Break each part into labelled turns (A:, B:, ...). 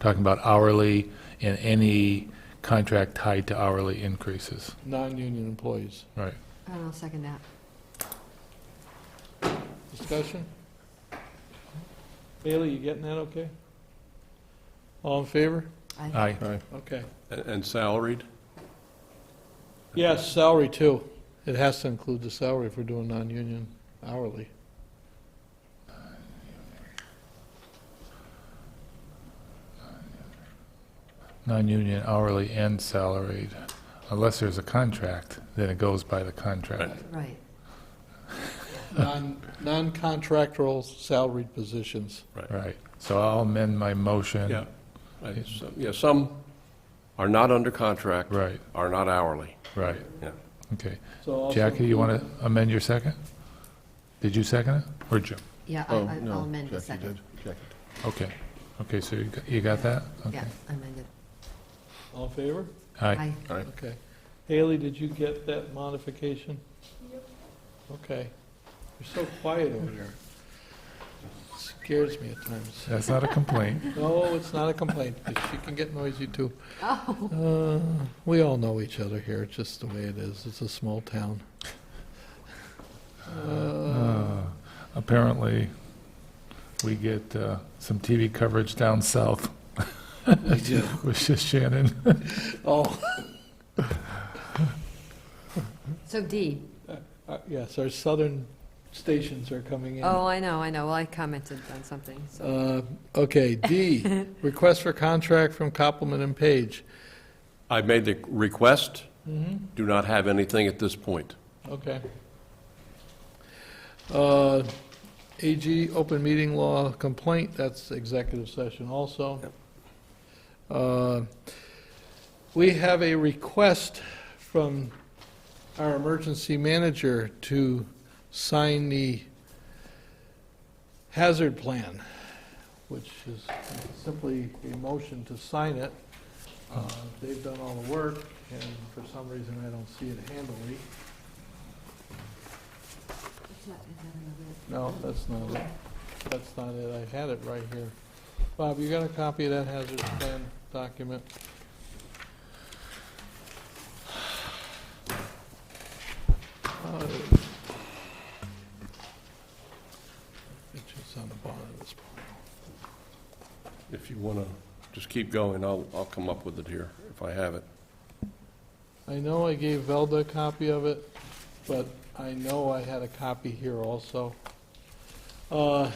A: talking about hourly and any contract tied to hourly increases.
B: non-union employees.
A: Right.
C: And I'll second that.
B: Discussion? Bailey, you getting that okay? All in favor?
C: I
A: Aye.
B: Okay.
D: And- And salaried?
B: Yes, salary too. It has to include the salary if we're doing non-union hourly.
A: Non-union hourly and salaried, unless there's a contract, then it goes by the contract.
C: Right.
B: Non, non-contractual salaried positions.
A: Right. So I'll amend my motion.
D: Yeah. I- so- Yeah, some are not under contract,
A: Right,
D: are not hourly.
A: right.
D: Yeah.
A: Okay.
B: So also
A: Jackie, you want
B: include-
A: to amend your second? Did you second it? Or Jim?
C: Yeah, I-
E: Oh,
C: I-
E: no,
C: I'll amend the
E: Jackie
C: second.
E: did. Jackie
A: Okay. Okay, so you got- you got that? Okay.
C: Yeah, I amended.
B: All in favor?
A: Aye.
C: I
B: Okay. Haley, did you get that modification? Okay. You're so quiet over there. Scares me at times.
A: That's not a complaint.
B: No, it's not a complaint, 'cause she can get noisy, too. Uh, We all know each other here, it's just the way it is, it's a small town. Uh,
A: Uh, Apparently, we get uh, some TV coverage down south.
B: We do.
A: With just Shannon.
B: Oh,
C: So D.
B: uh, yes, our southern stations are coming in.
C: Oh, I know, I know. Well, I commented on something, so.
B: Uh, Okay, D, request for contract from Copeland and Page.
D: I made the request,
B: Mm-hmm.
D: do not have anything at this point.
B: Okay. Uh, AG, open meeting law complaint, that's executive session also. Uh, We have a request from our emergency manager to sign the hazard plan, which is simply a motion to sign it. Uh, They've done all the work, and for some reason, I don't see it handily.
C: It's not- is that
B: No,
C: another-
B: that's not it. That's not it. I had it right here. Bob, you got a copy of that hazard plan document? Uh, It's just on the bottom of this.
D: If you want to just keep going, I'll, I'll come up with it here, if I have it.
B: I know I gave Velda a copy of it, but I know I had a copy here also. Uh,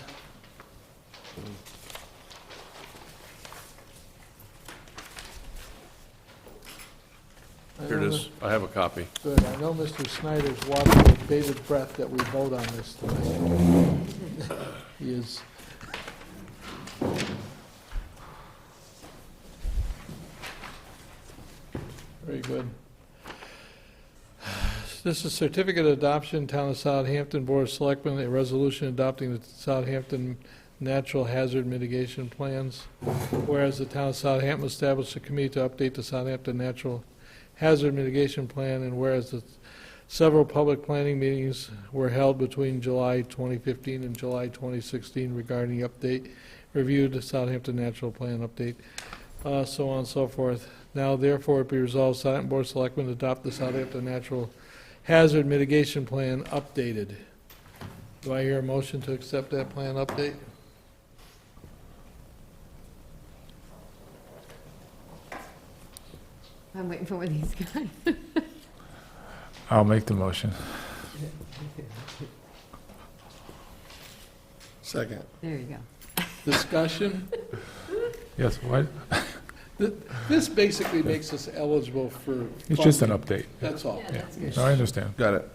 B: I
D: Here
B: know
D: it is,
C: Uh-huh.
D: I have a copy.
B: that- Good, I know Mr. Snyder's watching with bated breath that we vote on this tonight. He is, Very good. This is certificate of adoption, Town of Southampton Board of Selectmen, a resolution adopting the Southampton Natural Hazard Mitigation Plans. Whereas the Town of Southampton established a committee to update the Southampton Natural Hazard Mitigation Plan, and whereas the several public planning meetings were held between July 2015 and July 2016 regarding the update, review the Southampton Natural Plan update, uh, so on and so forth. Now therefore it be resolved, Southampton Board of Selectmen adopt the Southampton Natural Hazard Mitigation Plan updated. Do I hear a motion to accept that plan update?
C: I'm waiting for one of these guys.
A: I'll make the motion.
E: did. Second.
C: There you go.
B: Discussion?
A: Yes, what?
B: Th- This basically makes us eligible for.
A: It's just an
B: funding.
A: update.
B: That's all.
C: Yeah, that's good.
A: No, I understand.
E: Got it.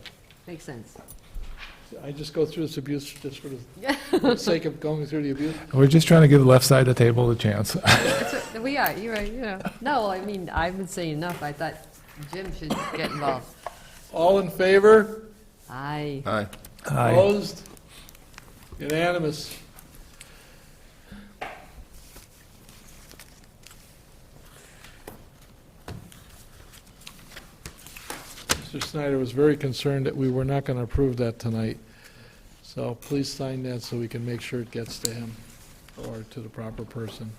C: Makes sense.
B: I just go through this abuse just for the sake of going through the abuse.
A: We're just trying to give the left side of the table a chance.
C: That's what- We are, you're right, you know. No, I mean, I would say enough. I thought Jim should get involved.
B: All in favor?
C: Aye.
E: Aye.
C: Oh,
A: Aye.
B: Opposed? Unanimous. Mr. Snyder was very concerned that we were not going to approve that tonight, so please sign that so we can make sure it gets to him or to the proper person.